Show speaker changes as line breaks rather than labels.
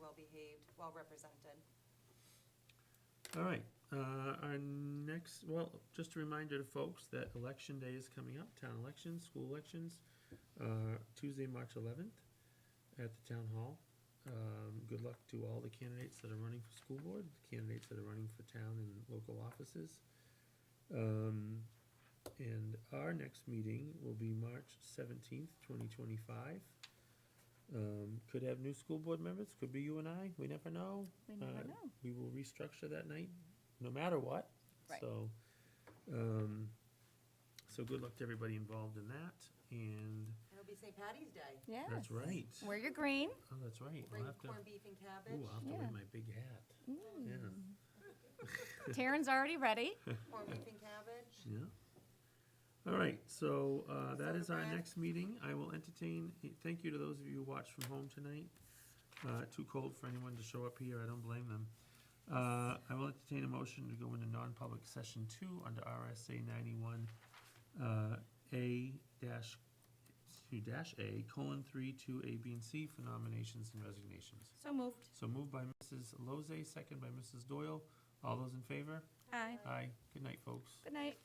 well-behaved, well-represented.
All right, uh, our next, well, just a reminder to folks that election day is coming up, town elections, school elections, uh, Tuesday, March eleventh, at the town hall. Um, good luck to all the candidates that are running for school board, the candidates that are running for town and local offices. Um, and our next meeting will be March seventeenth, twenty twenty-five. Um, could have new school board members, could be you and I, we never know.
We never
Uh,
know.
We will restructure that night, no matter what.
Right.
So, um, so good luck to everybody involved in that, and
It'll be St. Patty's Day.
Yeah.
that's right.
Wear your green.
Oh, that's right. I'll
Bring
have to,
corned beef and
ooh,
cabbage,
I'll have to wear
Yeah. Hmm.
my big hat. Yeah,
Taryn's already ready.
corned beef and cabbage.
yeah. All right, so, uh, that is our
Photograph.
next meeting. I will entertain, thank you to those of you who watched from home tonight. Uh, too cold for anyone to show up here, I don't blame them. Uh, I will entertain a motion to go into non-public session two under RSA ninety-one, uh, A dash, two dash A, colon, three, two, A, B, and C for nominations and resignations.
So moved.
So moved by Mrs. Lozay, second by Mrs. Doyle. All those in favor?
Aye.
Aye. Good night, folks.
Good night.